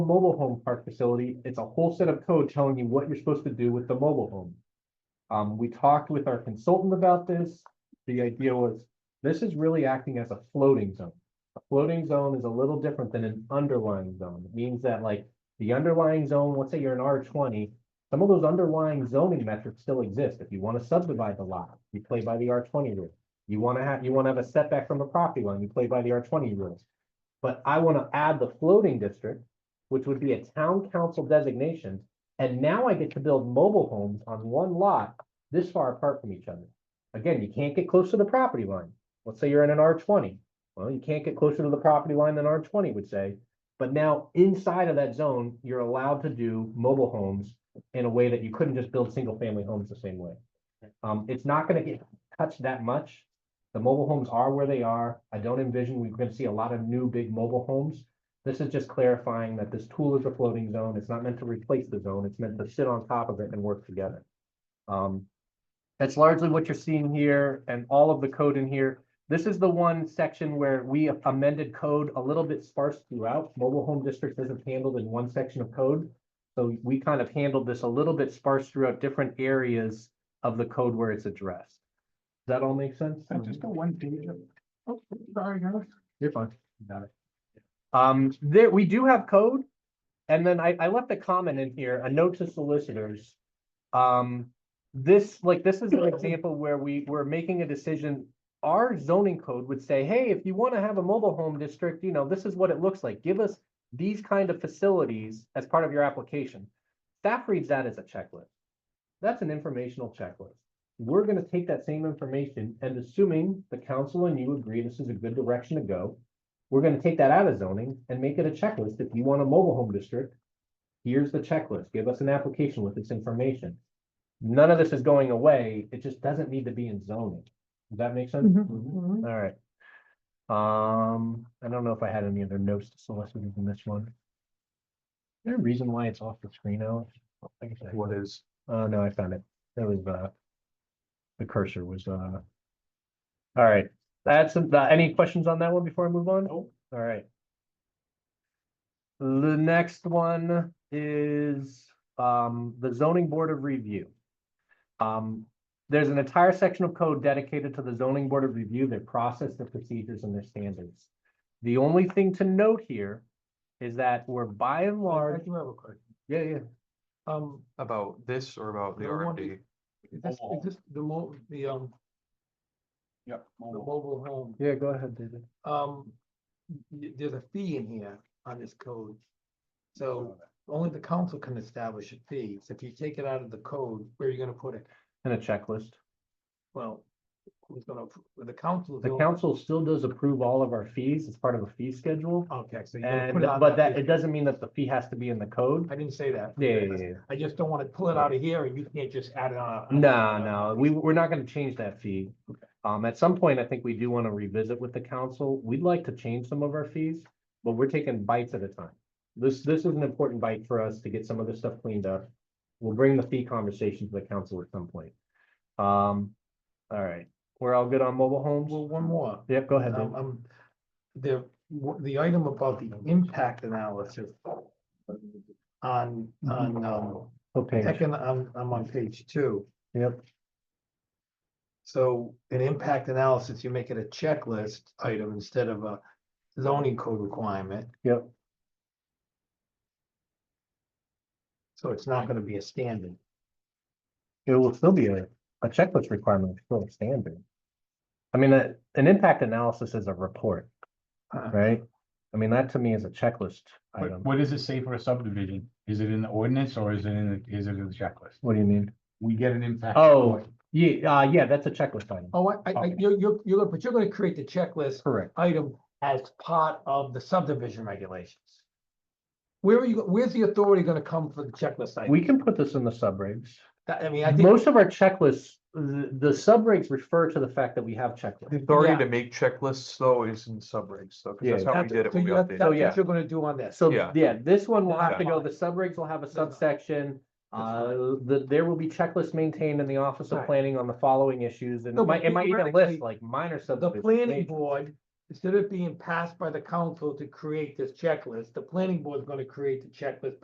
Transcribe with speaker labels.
Speaker 1: mobile home park facility, it's a whole set of code telling you what you're supposed to do with the mobile home. Um, we talked with our consultant about this. The idea was, this is really acting as a floating zone. A floating zone is a little different than an underlying zone. It means that like the underlying zone, let's say you're an R twenty, some of those underlying zoning metrics still exist. If you want to subdivide the lot, you play by the R twenty rule. You want to have, you want to have a setback from the property line, you play by the R twenty rules. But I want to add the floating district, which would be a town council designation. And now I get to build mobile homes on one lot this far apart from each other. Again, you can't get close to the property line. Let's say you're in an R twenty. Well, you can't get closer to the property line than R twenty would say. But now inside of that zone, you're allowed to do mobile homes in a way that you couldn't just build single family homes the same way. Um, it's not gonna get touched that much. The mobile homes are where they are. I don't envision we're gonna see a lot of new big mobile homes. This is just clarifying that this tool is a floating zone. It's not meant to replace the zone. It's meant to sit on top of it and work together. Um, that's largely what you're seeing here and all of the code in here. This is the one section where we amended code a little bit sparse throughout. Mobile home district isn't handled in one section of code. So we kind of handled this a little bit sparse throughout different areas of the code where it's addressed. Does that all make sense?
Speaker 2: I just got one page. of- Oh, sorry, guys.
Speaker 1: You're fine. Got it. Um, there, we do have code. And then I, I left a comment in here, a note to solicitors. Um, this, like, this is an example where we, we're making a decision. Our zoning code would say, hey, if you want to have a mobile home district, you know, this is what it looks like. Give us these kind of facilities as part of your application. Staff reads that as a checklist. That's an informational checklist we're gonna take that same information and assuming the council and you agree this is a good direction to go. We're gonna take that out of zoning and make it a checklist. If you want a mobile home district. Here's the checklist. Give us an application with this information. None of this is going away. It just doesn't need to be in zoning. Does that make sense?
Speaker 3: Mm-hmm.
Speaker 1: All right. Um, I don't know if I had any other notes to solicit in this one. Is there a reason why it's off the screen now? I guess I-
Speaker 2: What is?
Speaker 1: Oh, no, I found it. That was, uh, the cursor was, uh. All right, that's, uh, any questions on that one before I move on?
Speaker 2: Nope.
Speaker 1: All right. The next one is, um, the zoning board of review. Um, there's an entire section of code dedicated to the zoning board of review, their process, their procedures, and their standards. The only thing to note here is that we're by and
Speaker 2: I
Speaker 1: large,
Speaker 2: do have a question.
Speaker 1: yeah, yeah,
Speaker 2: Um,
Speaker 4: About this or about the
Speaker 2: No one-
Speaker 4: RFD?
Speaker 2: is this, is this the mo, the, um,
Speaker 3: Yep.
Speaker 2: the mobile home?
Speaker 1: yeah, go ahead, David.
Speaker 2: Um, y- there's a fee in here on this code. So only the council can establish a fee. So if you take it out of the code, where are you gonna put it?
Speaker 1: And a checklist.
Speaker 2: Well, who's gonna, appro- the council.
Speaker 1: The council still does approve all of our fees as part of a fee schedule.
Speaker 2: Okay, so. you're gonna
Speaker 1: And,
Speaker 2: put it on
Speaker 1: but that,
Speaker 2: fee.
Speaker 1: it doesn't mean that the fee has to be in the code.
Speaker 2: I didn't say that.
Speaker 1: Yeah, yeah, yeah, yeah.
Speaker 2: I just don't wanna pull it out of here and you can't just add it on. a-
Speaker 1: No, no, we, we're not gonna change that fee.
Speaker 2: uh, Okay.
Speaker 1: Um, at some point, I think we do wanna revisit with the council. We'd like to change some of our fees, but we're taking bites at a time. This, this is an important bite for us to get some of this stuff cleaned up. We'll bring the fee conversation to the council at some point. Um, all right, we're all good on mobile homes?
Speaker 2: Well, one more.
Speaker 1: Yep, go ahead.
Speaker 2: Um,
Speaker 1: Dave.
Speaker 2: um, the, wha- the item about the impact analysis. On, on, um,
Speaker 1: Okay,
Speaker 2: econ, I'm, I'm on page two.
Speaker 1: Yep.
Speaker 2: So an impact analysis, you make it a checklist item instead of a zoning code requirement.
Speaker 1: Yep.
Speaker 2: So it's not gonna be a standard.
Speaker 1: it will still be a, a checklist requirement, it's still a standard. I mean, a- an impact analysis is a report,
Speaker 2: Uh,
Speaker 1: right? I mean, that to me is a checklist
Speaker 3: What,
Speaker 1: item.
Speaker 3: what does it say for a subdivision? Is it in the ordinance or is it in, the is it in the checklist?
Speaker 1: What do you mean?
Speaker 3: We get an impact.
Speaker 1: Oh.
Speaker 3: report.
Speaker 1: Yeah, uh, yeah, that's a checklist item.
Speaker 2: Oh, I, I, I- you're, you're, you're, but you're gonna create the checklist
Speaker 1: Correct.
Speaker 2: item as part of the subdivision regulations. Where are you, where's the authority gonna come for the checklist item?
Speaker 1: We can put this in the subregs.
Speaker 2: That- I mean, I think,
Speaker 1: Most of our checklists, the, the subregs refer to the fact that we have checklists.
Speaker 4: The authority
Speaker 2: Yeah.
Speaker 4: to make checklists though is in subregs though, because
Speaker 1: Yeah.
Speaker 4: that's how we
Speaker 2: that's,
Speaker 4: did it
Speaker 2: so
Speaker 4: when we
Speaker 2: you- that's
Speaker 4: updated.
Speaker 2: that's
Speaker 1: Oh, yeah.
Speaker 2: what you're gonna do on this.
Speaker 1: So,
Speaker 4: Yeah.
Speaker 1: yeah, this one will have to go,
Speaker 2: Okay.
Speaker 1: the subregs will have a
Speaker 2: That's fine.
Speaker 1: subsection. Uh, the, there will be checklists maintained in the Office of
Speaker 2: Right.
Speaker 1: Planning on the following issues, and
Speaker 2: No,
Speaker 1: it
Speaker 2: but
Speaker 1: might, it might even list
Speaker 2: theoretically,
Speaker 1: like minor
Speaker 2: The
Speaker 1: subdivisions.
Speaker 2: planning board instead of being passed by the council to create this checklist, the planning board is gonna create the checklist